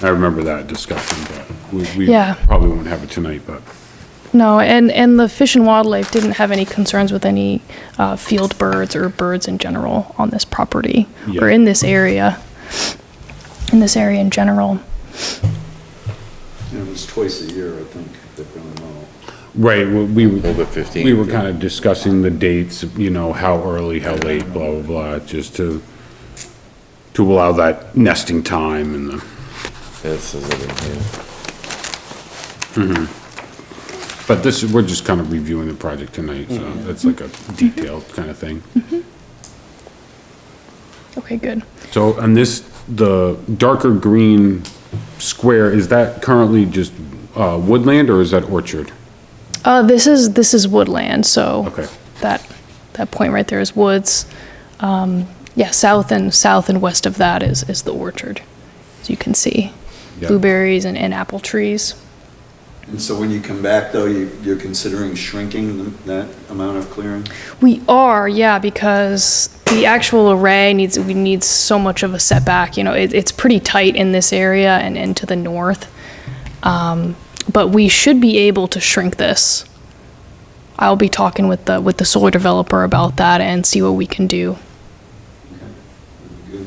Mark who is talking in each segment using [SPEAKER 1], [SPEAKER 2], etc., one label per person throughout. [SPEAKER 1] I remember that discussion, but we, we
[SPEAKER 2] Yeah.
[SPEAKER 1] probably won't have it tonight, but
[SPEAKER 2] No, and, and the Fish and Wildlife didn't have any concerns with any uh, field birds or birds in general on this property or
[SPEAKER 1] Yeah.
[SPEAKER 2] in this area, in this area in general.
[SPEAKER 3] And it's twice a year, I think, they're gonna know.
[SPEAKER 1] Right, we, we-
[SPEAKER 4] Hold it 15.
[SPEAKER 1] we were kind of discussing the dates, you know, how early, how late, blah, blah, blah, just to, to allow that nesting time and the,
[SPEAKER 4] This is it, yeah.
[SPEAKER 1] but this, we're just kind of reviewing the project tonight, so that's like a detailed kind of thing.
[SPEAKER 2] Okay, good.
[SPEAKER 1] So on this, the darker green square, is that currently just, uh, woodland or is that orchard?
[SPEAKER 2] Uh, this is, this is woodland, so.
[SPEAKER 1] Okay.
[SPEAKER 2] That, that point right there is woods. Um, Yeah, south and, south and west of that is, is the orchard, as you can see.
[SPEAKER 1] Yeah.
[SPEAKER 2] Blueberries and, and apple trees.
[SPEAKER 3] And so when you come back, though, you, you're considering shrinking th- that amount of clearing?
[SPEAKER 2] We are, yeah, because the actual array needs, we need so much of a setback, you know, it, it's pretty tight in this area and, and to the north. Um, but we should be able to shrink this. I'll be talking with the, with the solar developer about that and see what we can do.
[SPEAKER 3] Good.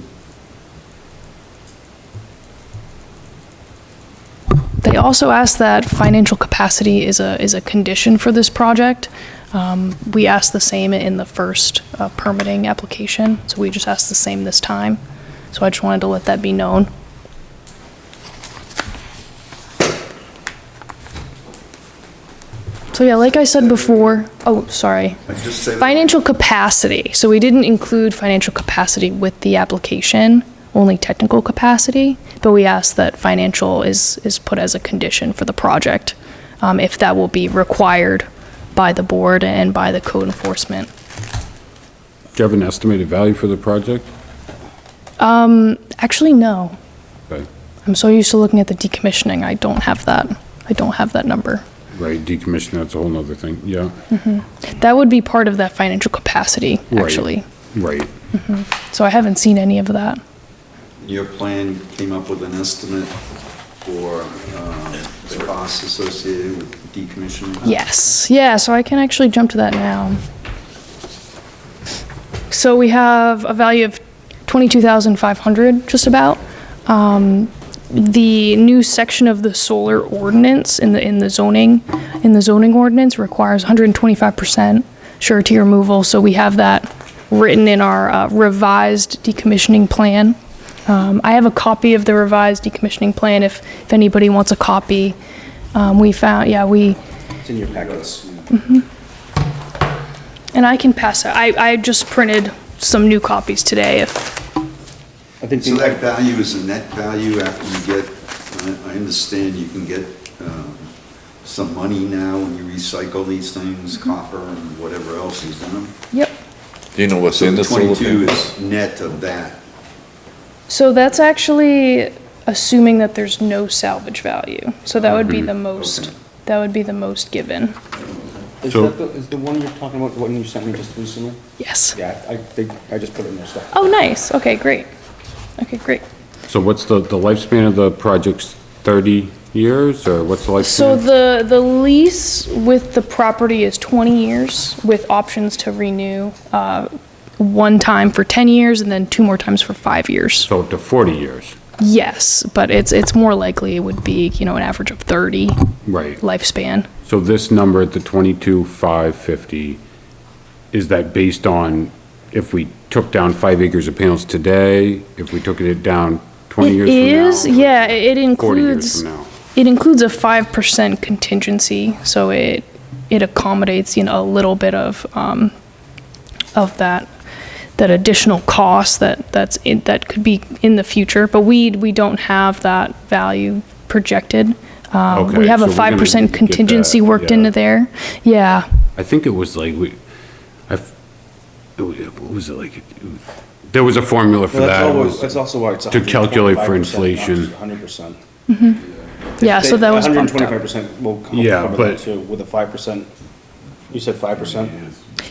[SPEAKER 2] They also asked that financial capacity is a, is a condition for this project. Um, we asked the same in the first uh, permitting application, so we just asked the same this time. So I just wanted to let that be known. So yeah, like I said before, oh, sorry.
[SPEAKER 3] I just say. that-
[SPEAKER 2] Financial capacity, so we didn't include financial capacity with the application, only technical capacity, but we asked that financial is, is put as a condition for the project, um, if that will be required by the board and by the code enforcement.
[SPEAKER 1] Do you have an estimated value for the project?
[SPEAKER 2] Actually, no,
[SPEAKER 1] Okay.
[SPEAKER 2] I'm so used to looking at the decommissioning, I don't have that, I don't have that number.
[SPEAKER 1] Right, decommission, that's a whole nother thing, yeah,
[SPEAKER 2] That would be part of that financial capacity,
[SPEAKER 1] Right.
[SPEAKER 2] actually,
[SPEAKER 1] right.
[SPEAKER 2] so I haven't seen any of that.
[SPEAKER 3] Your plan came up with an estimate for, um, the costs associated with decommissioning?
[SPEAKER 2] Yes, yeah, so I can actually jump to that now. So we have a value of 22,500, just about. Um, The new section of the solar ordinance in the, in the zoning, in the zoning ordinance requires 125% surety removal, so we have that written in our uh, revised decommissioning plan. Um, I have a copy of the revised decommissioning plan if, if anybody wants a copy. Um, We found, yeah, we, And I can pass out. I, I just printed some new copies today. If
[SPEAKER 5] I think,
[SPEAKER 3] So that
[SPEAKER 5] the-
[SPEAKER 3] value is a net value after you get, I, I understand you can get, um, some money now when you recycle these things, copper and whatever else is in them.
[SPEAKER 2] yep.
[SPEAKER 4] Do you know what's
[SPEAKER 3] So
[SPEAKER 4] in
[SPEAKER 3] the
[SPEAKER 4] the solar
[SPEAKER 3] twenty-two
[SPEAKER 4] panel?
[SPEAKER 3] is net of that.
[SPEAKER 2] So that's actually assuming that there's no salvage value. So that would be the most.
[SPEAKER 3] Okay.
[SPEAKER 2] That would be the most given.
[SPEAKER 5] is
[SPEAKER 1] So-
[SPEAKER 5] that the, is the one you're talking about, the one you sent me just recently?
[SPEAKER 2] Yes.
[SPEAKER 5] Yeah, I think, I just put it in there, so.
[SPEAKER 2] Oh, nice. Okay, great. Okay, great.
[SPEAKER 1] So what's the, the lifespan of the project's 30 years, or what's the lifespan?
[SPEAKER 2] So the the lease with the property is 20 years with options to renew uh, one time for 10 years and then two more times for five years.
[SPEAKER 1] So up to 40 years,
[SPEAKER 2] Yes, but it's it's more likely it would be you know an average of 30
[SPEAKER 1] right.
[SPEAKER 2] lifespan.
[SPEAKER 1] So this number at the 22,550, is that based on if we took down five acres of panels today, if we took it down 20 years
[SPEAKER 2] It
[SPEAKER 1] from now?
[SPEAKER 2] is, yeah, i- it
[SPEAKER 1] 40 years
[SPEAKER 2] includes,
[SPEAKER 1] from now?
[SPEAKER 2] it includes a 5% contingency, so it, it accommodates, you know, a little bit of, um, of that, that additional cost that, that's, in- that could be in the future, but we, we don't have that value projected. Um,
[SPEAKER 1] Okay,
[SPEAKER 2] We have
[SPEAKER 1] so
[SPEAKER 2] a
[SPEAKER 1] we're gonna need
[SPEAKER 2] 5%
[SPEAKER 1] to get that,
[SPEAKER 2] contingency worked
[SPEAKER 1] yeah.
[SPEAKER 2] into there, yeah.
[SPEAKER 1] I think it was like, we, I, f- it wa- what was it like? There was a formula for
[SPEAKER 5] Well, that's
[SPEAKER 1] that. It
[SPEAKER 5] always,
[SPEAKER 1] was-
[SPEAKER 5] that's also why it's.
[SPEAKER 1] to calculate for inflation.
[SPEAKER 5] Hundred percent.
[SPEAKER 2] Yeah, Uh, so that was
[SPEAKER 5] Hundred and
[SPEAKER 2] bumped
[SPEAKER 5] twenty-five
[SPEAKER 2] up.
[SPEAKER 5] percent will co-
[SPEAKER 1] Yeah,
[SPEAKER 5] cover
[SPEAKER 1] but-
[SPEAKER 5] that too, with a five percent, you said five percent?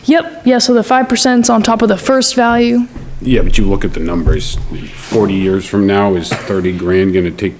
[SPEAKER 2] Yep, yeah, so the 5%'s on top of the first value.
[SPEAKER 1] Yeah, but you look at the numbers, 40 years from now, is 30 grand going to take down